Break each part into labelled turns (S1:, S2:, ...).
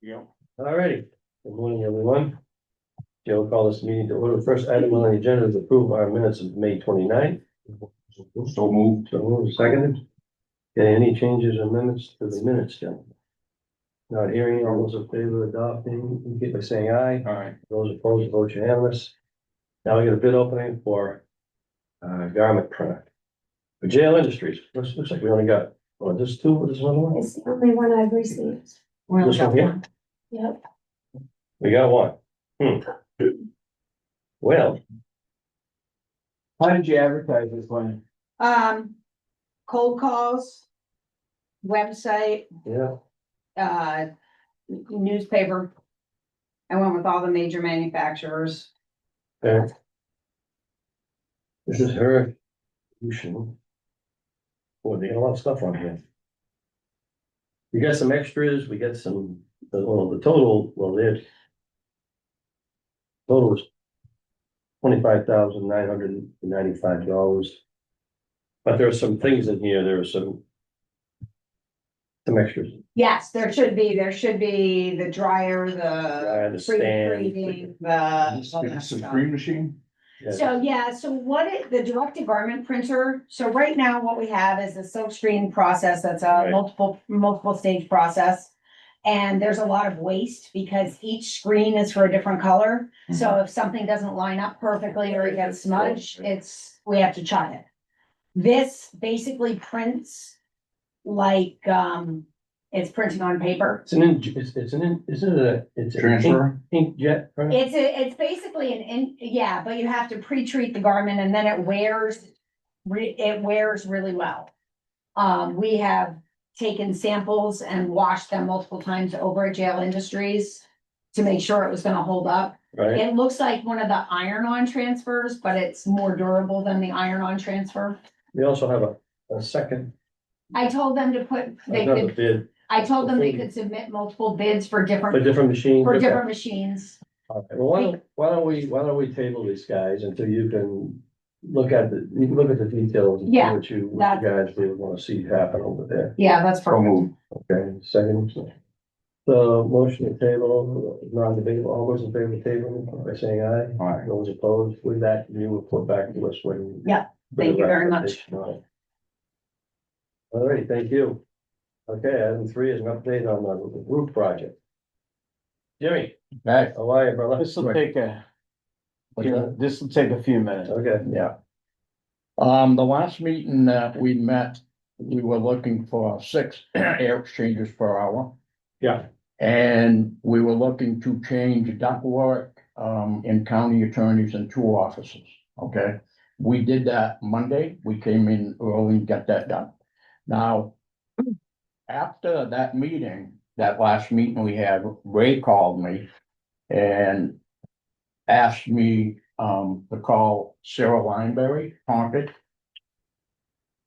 S1: Yeah.
S2: All righty. good morning, everyone. Joe, call this meeting to order. First item on the agenda is approve our minutes of May 29th.
S1: So moved.
S2: So move seconded. Okay, any changes or amendments to the minutes, Joe? Not hearing, all those in favor of adopting, indicate by saying aye.
S1: All right.
S2: Those opposed, vote unanimous. Now we got a bid opening for uh, garment printer. For jail industries, looks, looks like we only got, oh, this two, what is one more?
S3: It's the only one I've received.
S4: We're
S2: This one here?
S3: Yep.
S2: We got one. Hmm. Well,
S1: How did you advertise this one?
S4: Um, cold calls, website,
S2: yeah.
S4: uh, newspaper. I went with all the major manufacturers.
S2: There. This is her. solution. Boy, they got a lot of stuff on here. We got some extras, we got some, the, well, the total, well, there's. Total is twenty-five thousand nine hundred and ninety-five dollars. But there are some things in here, there are some. Some extras,
S4: Yes, there should be, there should be the dryer, the.
S2: I understand.
S4: pre-treating, The. all that stuff.
S1: Supreme machine?
S4: So, yeah, so what it, the direct garment printer, so right now what we have is a silk screen process that's a
S2: Right.
S4: multiple, multiple stage process. And there's a lot of waste because each screen is for a different color. So if something doesn't line up perfectly or it gets smudged, it's, we have to chop it. This basically prints like, um, it's printing on paper.
S2: It's an, in- it's, it's an, in- isn't it a, it's an ink-
S1: Transfer?
S2: inkjet? printer?
S4: It's a, it's basically an, in yeah, but you have to pre-treat the garment and then it wears, re, it wears really well. Um, we have taken samples and washed them multiple times over at Jail Industries to make sure it was gonna hold up.
S2: Right?
S4: It looks like one of the iron-on transfers, but it's more durable than the iron-on transfer.
S2: They also have a, a second,
S4: I told them to put, they
S2: another
S4: could,
S2: bid
S4: I told them they could submit multiple bids for
S2: for
S4: different,
S2: different machines.
S4: for different machines.
S2: Well, why don't, why don't we, why don't we table these guys until you can look at the, you can look at the details. and see
S4: Yeah,
S2: What you, what you guys really wanna see happen over there.
S4: Yeah, that's
S1: So
S4: perfect.
S1: moved.
S2: Okay, second. So motion to table, non-debatable, all those in favor of table, by saying aye.
S1: All right.
S2: Those opposed, with that, you report back to us when.
S4: Yeah, thank you very much.
S2: All right, thank you. Okay, item three is an update on the roof project. Jimmy,
S5: Right,
S2: how are you, brother?
S5: this will take a,
S2: What's that?
S5: this will take a few minutes.
S2: Okay,
S5: Yeah. Um, the last meeting that we met, we were looking for six air exchangers per hour.
S2: Yeah.
S5: And we were looking to change duck work, um, in county attorneys and two officers, okay? We did that Monday, we came in early and got that done. Now, after that meeting, that last meeting we had, Ray called me and asked me um to call Sarah Lineberry, Concord.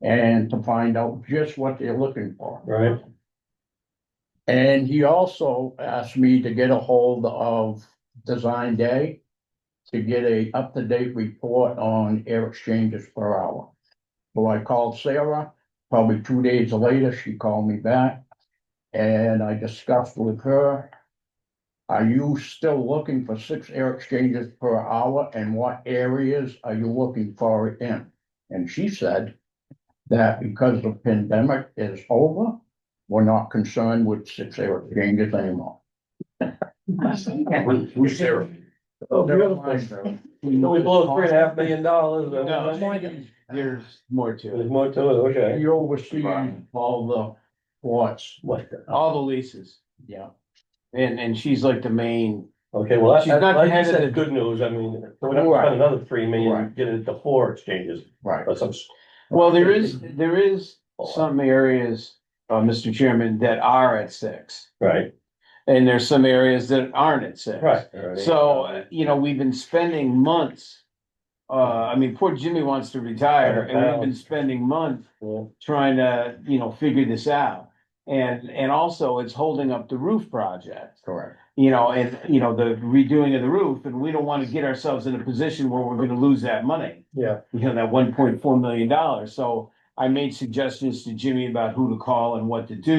S5: And to find out just what they're looking for.
S2: Right.
S5: And he also asked me to get a hold of Design Day. To get a up-to-date report on air exchanges per hour. So I called Sarah, probably two days later, she called me back. And I discussed with her. Are you still looking for six air exchanges per hour and what areas are you looking for it in? And she said that because the pandemic is over, we're not concerned with six air exchanges anymore.
S1: Who's there?
S2: Oh,
S5: Never
S2: beautiful.
S5: mind, though.
S2: So we blow three and a half million dollars. uh,
S5: There's
S6: more to it.
S2: There's more to it, okay.
S5: You oversee all the ports,
S2: What? the-
S6: All the leases.
S5: yeah.
S6: And, and she's like the main,
S2: Okay, well, that's,
S6: She's not
S2: like you
S6: ahead of
S2: said,
S6: the-
S2: good news, I mean, we're not
S5: Right.
S2: spend another three million,
S5: Right.
S2: get it to four exchanges,
S5: Right.
S2: or some.
S6: well, there is, there is some areas, uh, Mr. Chairman, that are at six.
S2: Right,
S6: And there's some areas that aren't at six.
S2: right.
S6: So, uh, you know, we've been spending months. Uh, I mean, poor Jimmy wants to retire and we've been spending months
S2: Yeah.
S6: trying to, you know, figure this out. And, and also it's holding up the roof project.
S5: Correct.
S6: you know, and, you know, the redoing of the roof, and we don't wanna get ourselves in a position where we're gonna lose that money.
S2: Yeah.
S6: You know, that one point four million dollars, so I made suggestions to Jimmy about who to call and what to do.